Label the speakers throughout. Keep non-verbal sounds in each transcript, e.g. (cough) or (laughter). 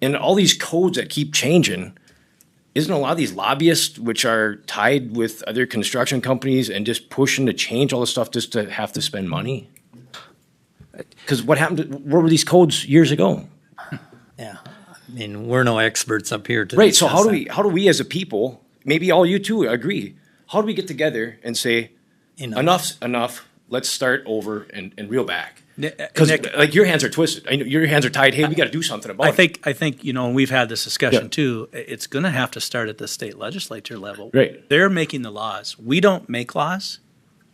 Speaker 1: and all these codes that keep changing, isn't a lot of these lobbyists, which are tied with other construction companies and just pushing to change all this stuff just to have to spend money? Because what happened, to- where were these codes years ago?
Speaker 2: Yeah. I mean, we're no experts up here to.
Speaker 1: Right, so how do
Speaker 2: discuss
Speaker 1: we, how do we as a people, maybe all you two agree, how do we get together and say,
Speaker 2: that. You know,
Speaker 1: enough's enough, let's start over and, and reel back?
Speaker 3: Nick-
Speaker 1: Because
Speaker 3: uh, Nick-
Speaker 1: like your hands are twisted, I know your hands are tied, hey, we gotta do something about it.
Speaker 3: I think, I think, you know, and we've had this
Speaker 1: Yeah.
Speaker 3: discussion too, i- it's going to have to start at the state legislature level.
Speaker 1: Right.
Speaker 3: They're making the laws. We don't make laws.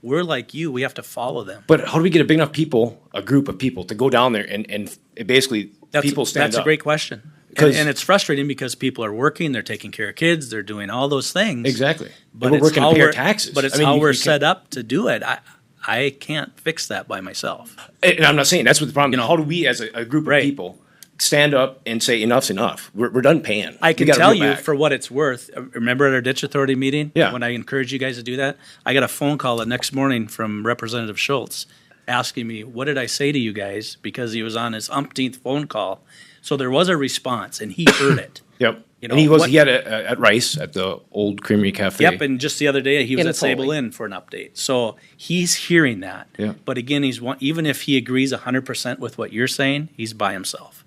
Speaker 3: We're like you, we have to follow them.
Speaker 1: But how do we get a big enough people, a group of people, to go down there and and it basically
Speaker 3: That's,
Speaker 1: people stand
Speaker 3: that's
Speaker 1: up?
Speaker 3: a great question. And,
Speaker 1: 'Cause-
Speaker 3: and it's frustrating because people are working, they're taking care of kids, they're doing all those things.
Speaker 1: exactly.
Speaker 3: But
Speaker 1: But we're
Speaker 3: it's
Speaker 1: working
Speaker 3: how
Speaker 1: to pay our
Speaker 3: we're-
Speaker 1: taxes.
Speaker 3: But it's
Speaker 1: I mean,
Speaker 3: how
Speaker 1: you-
Speaker 3: we're
Speaker 1: you
Speaker 3: set
Speaker 1: can't-
Speaker 3: up to do it. I, I can't fix that by myself.
Speaker 1: And I'm not saying that's what the problem. You know, how do we as a, a group
Speaker 3: Right.
Speaker 1: of people stand up and say enough's enough? We're, we're done paying.
Speaker 3: I
Speaker 1: We
Speaker 3: can
Speaker 1: gotta
Speaker 3: tell
Speaker 1: reel
Speaker 3: you
Speaker 1: back."
Speaker 3: for what it's worth. uh, Remember at our ditch authority meeting?
Speaker 1: Yeah.
Speaker 3: When I encouraged you guys to do that, I got a phone call the next morning from Representative Schultz asking me, what did I say to you guys? Because he was on his umpteenth phone call. So there was a response and he heard
Speaker 1: (coughs)
Speaker 3: it.
Speaker 1: Yep.
Speaker 3: you
Speaker 1: and he
Speaker 3: know,
Speaker 1: was
Speaker 3: what-
Speaker 1: he had a, a, at Rice at the old Creamery Cafe.
Speaker 3: Yep, and just the other day he was
Speaker 4: In
Speaker 3: at Sable
Speaker 4: Foley.
Speaker 3: Inn for an update. So he's hearing that.
Speaker 1: Yeah.
Speaker 3: But again, he's one, even if he agrees hundred percent with what you're saying, he's by himself.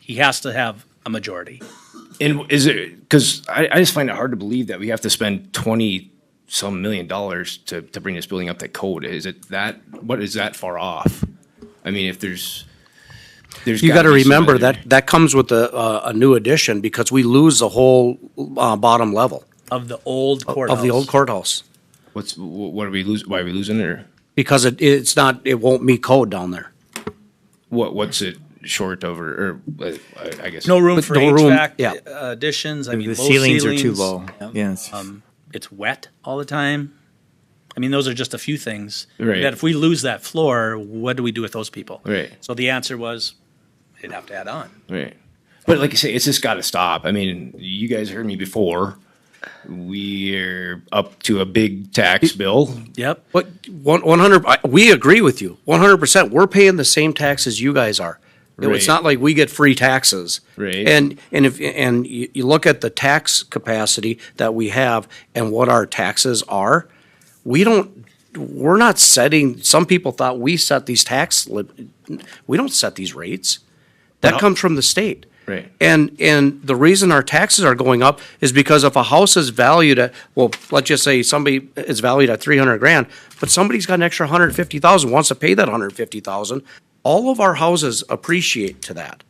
Speaker 3: He has to have a majority.
Speaker 1: And is it because I, I just find it hard to believe that we have to spend twenty some million dollars to, to bring this building up to code? Is it that what is that far off? I mean, if there's there's
Speaker 4: You got
Speaker 1: gotta
Speaker 4: to
Speaker 1: be some
Speaker 4: remember
Speaker 1: other-
Speaker 4: that, that comes with a, a- a new addition because we lose the whole uh, bottom level
Speaker 3: Of the old courthouse.
Speaker 4: of the old courthouse.
Speaker 1: What's wh- what are we losing? Why are we losing it? Or
Speaker 4: Because it, it's not, it won't meet code down there.
Speaker 1: what what's it short of? Or, or uh, I, I guess
Speaker 3: No room
Speaker 4: With
Speaker 3: for
Speaker 4: no room,
Speaker 3: HVAC
Speaker 4: yeah.
Speaker 3: uh, additions. I mean,
Speaker 5: the
Speaker 3: low
Speaker 5: ceilings are too
Speaker 3: ceilings.
Speaker 5: low. Yes.
Speaker 3: Um, it's wet all the time. I mean, those are just a few things.
Speaker 1: Right.
Speaker 3: That if we lose that floor, what do we do with those people?
Speaker 1: Right.
Speaker 3: So the answer was, they'd have to add on.
Speaker 1: right. But like you say, it's just got to stop. I mean, you guys heard me before. We're up to a big tax bill.
Speaker 3: Yep.
Speaker 4: But one, one hundred, I- we agree with you, one hundred percent. We're paying the same taxes you guys are. You know, It's
Speaker 1: Right.
Speaker 4: not like we get free taxes.
Speaker 1: Right.
Speaker 4: And, and if, and you, you look at the tax capacity that we have and what our taxes are, we don't, we're not setting, some people thought we set these tax, li- we don't set these rates. That comes from the state.
Speaker 1: Right.
Speaker 4: And, and the reason our taxes are going up is because if a house is valued at, well, let's just say somebody is valued at three hundred grand, but somebody's got an extra hundred fifty thousand, wants to pay that hundred fifty thousand, all of our houses appreciate to that.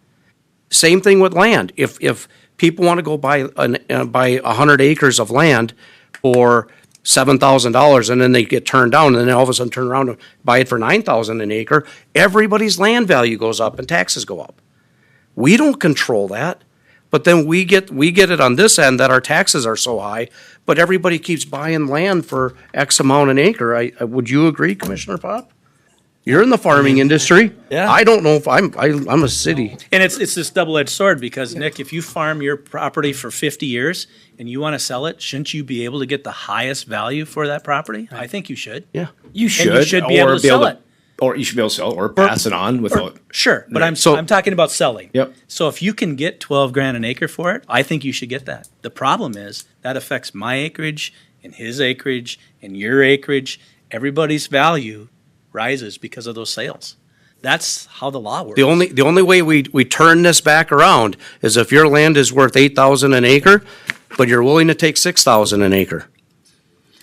Speaker 4: Same thing with land. If, if people want to go buy, an- uh, buy a hundred acres of land for seven thousand dollars and then they get turned down and then all of a sudden turn around and buy it for nine thousand an acre, everybody's land value goes up and taxes go up. We don't control that. But then we get, we get it on this end that our taxes are so high, but everybody keeps buying land for X amount an acre. I, I- would you agree, Commissioner Pop? You're in the farming industry.
Speaker 3: Yeah.
Speaker 4: I don't know if I'm, I, I'm a city.
Speaker 3: And it's it's this double edged sword because Nick, if you farm your property for fifty years and you want to sell it, shouldn't you be able to get the highest value for that property? I think you should.
Speaker 4: Yeah.
Speaker 1: You should,
Speaker 3: should be able to sell it.
Speaker 1: or you should be able to sell, or pass it on
Speaker 3: Or-
Speaker 1: without.
Speaker 3: sure, but I'm
Speaker 4: So-
Speaker 3: I'm talking about selling.
Speaker 1: Yep.
Speaker 3: So if you can get twelve grand an acre for it, I think you should get that. The problem is that affects my acreage and his acreage and your acreage. Everybody's value rises because of those sales. That's how the law works.
Speaker 4: The only, the only way we, we turn this back around is if your land is worth eight thousand an acre, but you're willing to take six thousand an acre.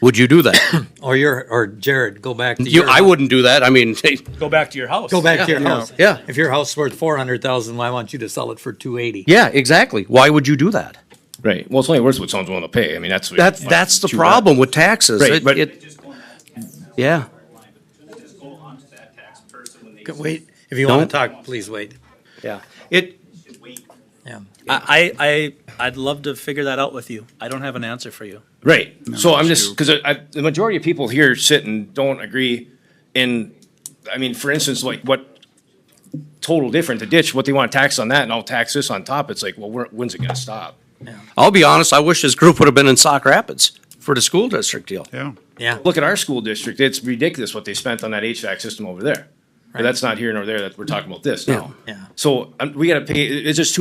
Speaker 4: Would you do (coughs) that?
Speaker 2: Or your, or Jared, go back to
Speaker 4: You,
Speaker 2: your.
Speaker 4: I wouldn't do that. I mean, (laughs)
Speaker 3: go back to your house.
Speaker 2: Go back to your house.
Speaker 4: yeah.
Speaker 2: If your house worth four hundred thousand, why want you to sell it for two eighty?
Speaker 4: yeah, exactly. Why would you do that?
Speaker 1: Right. Well, it's only worth what someone's willing to pay. I mean, that's what-
Speaker 4: That's, that's the problem with taxes.
Speaker 1: Right,
Speaker 4: It-
Speaker 1: but-
Speaker 4: it- Yeah.
Speaker 2: Wait, if you want
Speaker 4: Don't.
Speaker 2: to talk, please wait.
Speaker 4: Yeah. It,
Speaker 2: Yeah.
Speaker 3: I, I, I- I'd love to figure that out with you. I don't have an answer for you.
Speaker 1: Right. so I'm just because I, I, the majority of people here sit and don't agree. And I mean, for instance, like what total different the ditch, what they want to tax on that, and I'll tax this on top. It's like, well, where, when's it going to stop?
Speaker 4: I'll be honest, I wish this group would have been in Sauk Rapids for the school district deal.
Speaker 6: Yeah.
Speaker 2: Yeah.
Speaker 1: Look at our school district; it's ridiculous what they spent on that HVAC system over there. But that's not here nor there. That we're talking about this now.
Speaker 2: Yeah.
Speaker 1: So um, we got to pay. it- It's just too